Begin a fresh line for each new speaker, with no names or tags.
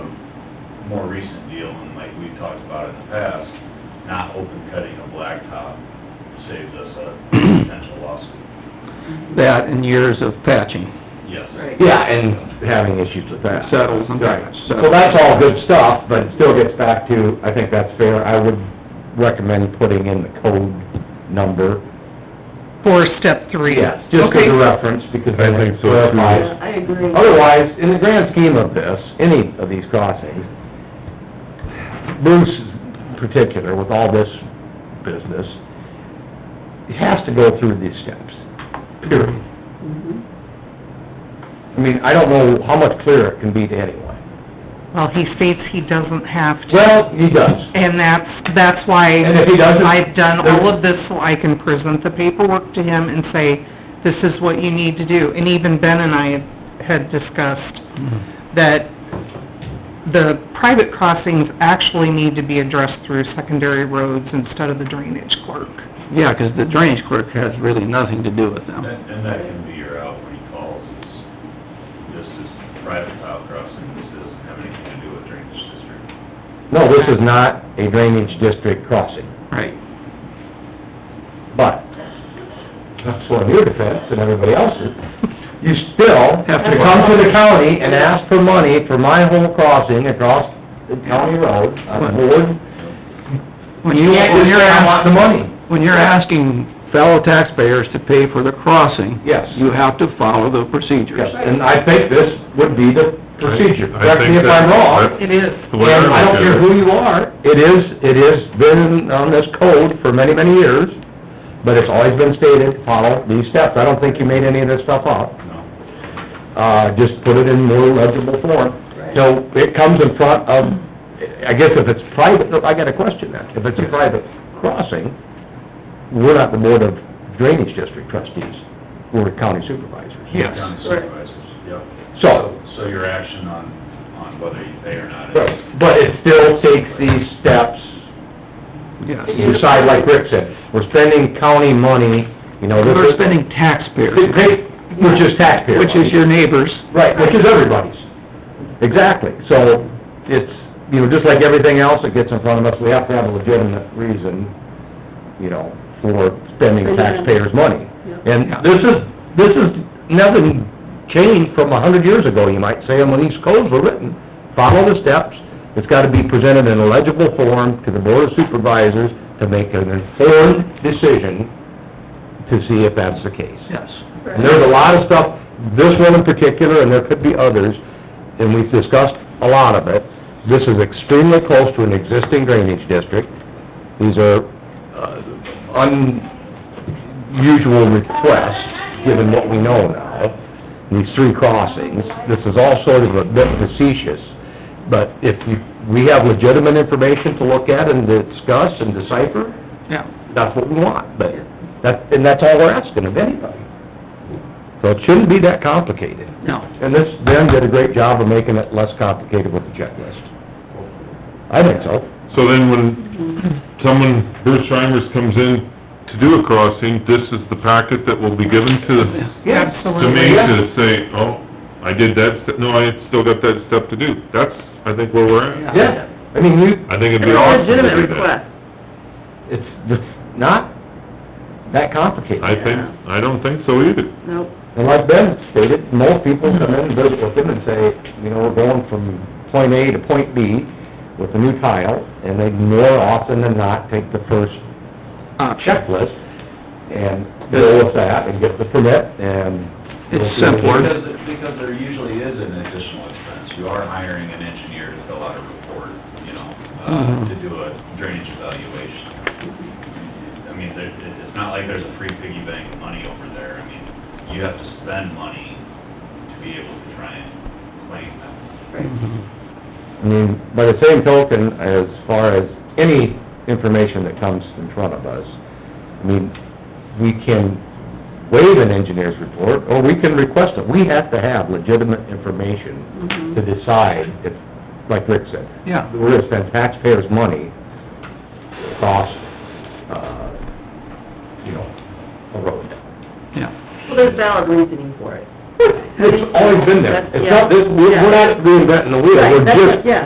more recent deal, and like we've talked about in the past, not open cutting a blacktop saves us a potential lawsuit.
that and years of patching.
Yes.
Right.
Yeah, and having issues with that.
Settles and
Right.
settles.
So that's all good stuff, but it still gets back to, I think that's fair. I would recommend putting in the code number.
For step three.
Yes, just as
Okay.
a reference, because
I
then
think
it
so, too.
clarifies.
I agree.
Otherwise, in the grand scheme of this, any of these crossings, Bruce in particular, with all this business, it has to go through these steps, period.
Mhm.
I mean, I don't know how much clearer it can be to anyone.
Well, he states he doesn't have to.
Well, he does.
And that's, that's why
And if he doesn't-
I've done all of this, so I can present the paperwork to him and say, this is what you need to do. And even Ben and I had discussed that the private crossings actually need to be addressed through secondary roads instead of the drainage clerk.
Yeah, 'cause the drainage clerk has really nothing to do with
And,
them.
and that can be your out when he calls, is this is private tile crossing, this doesn't have anything to do with drainage district.
No, this is not a drainage district crossing,
Right.
but, that's one of your defense and everybody else's. You still have to come to the county and ask for money for my whole crossing across the county road, on board.
When you, when you're,
I want the
ask-
money.
when you're asking fellow taxpayers to pay for the crossing,
Yes,
you have to follow the procedures.
yes, and I think this would be the procedure,
I- I
correct me
think
if I'm
that-
wrong.
that-
It is.
The way
And I
look
don't
at
care
it.
who you are, it is, it has been on this code for many, many years, but it's always been stated, follow these steps. I don't think you made any of this stuff up.
No.
Uh, just put it in more legible form.
Right.
So it comes in front of, I guess if it's private, no, I got a question then. If it's a private crossing, we're not the board of drainage district trustees, we're county supervisors.
Yes.
County
Right.
supervisors, yep.
So,
So your action on, on whether you pay or not is
but but it still takes these steps
Yes.
You decide, like Rick said, we're spending county money, you know, this
We're
is...
spending taxpayer,
Which is taxpayer
which is
money.
your neighbors.
Right, which is everybody's. Exactly. So it's, you know, just like everything else that gets in front of us, we have to have a legitimate reason, you know, for spending taxpayers' money.
Yeah.
And this is, this is nothing changed from a hundred years ago, you might say, and when these codes were written. Follow the steps, it's gotta be presented in a legible form to the Board of Supervisors to make an informed decision to see if that's the case.
Yes.
And there's a lot of stuff, this one in particular, and there could be others, and we've discussed a lot of it. This is extremely close to an existing drainage district. These are uh, unusual requests, given what we know now, these three crossings. This is all sort of a bit facetious, but if you, we have legitimate information to look at and discuss and decipher,
Yeah.
that's what we want, but that, and that's all we're asking of anybody. So it shouldn't be that complicated.
No.
And this, Ben did a great job of making it less complicated with the checklist. I think so.
So then when someone, Bruce Reimers comes in to do a crossing, this is the packet that will be given to, to
Absolutely.
me to say, oh, I did that, step. no, I still got that step to do. That's, I think, where we're at.
Yeah, I mean, you,
I think it'd
It's
be
a
awesome to do
legitimate
that.
request.
it's just not that complicated.
I think, I don't think so either.
Nope.
And like Ben stated, most people come in and visit with him and say, you know, we're going from point A to point B with a new tile, and they more often than not take the first
Option.
checklist and go with that and get the permit and...
It's simpler.
Because, because there usually is an additional expense, you are hiring an engineer to fill out a report, you know, uh,
Mhm.
to do a drainage evaluation. I mean, there, it- it's not like there's a free piggy bank of money over there, I mean, you have to spend money to be able to try and claim that.
Mm-hmm. I mean, by the same token, as far as any information that comes in front of us, I mean, we can waive an engineer's report, or we can request it. We have to have legitimate information to decide if, like Rick said,
Yeah.
we're gonna spend taxpayers' money across, uh, you know, a road.
Yeah.
Well, there's valid reasoning for it.
It's always been there. It's not, this, we're we're not reinventing the wheel,
Right,
we're
that's
just
what- yeah.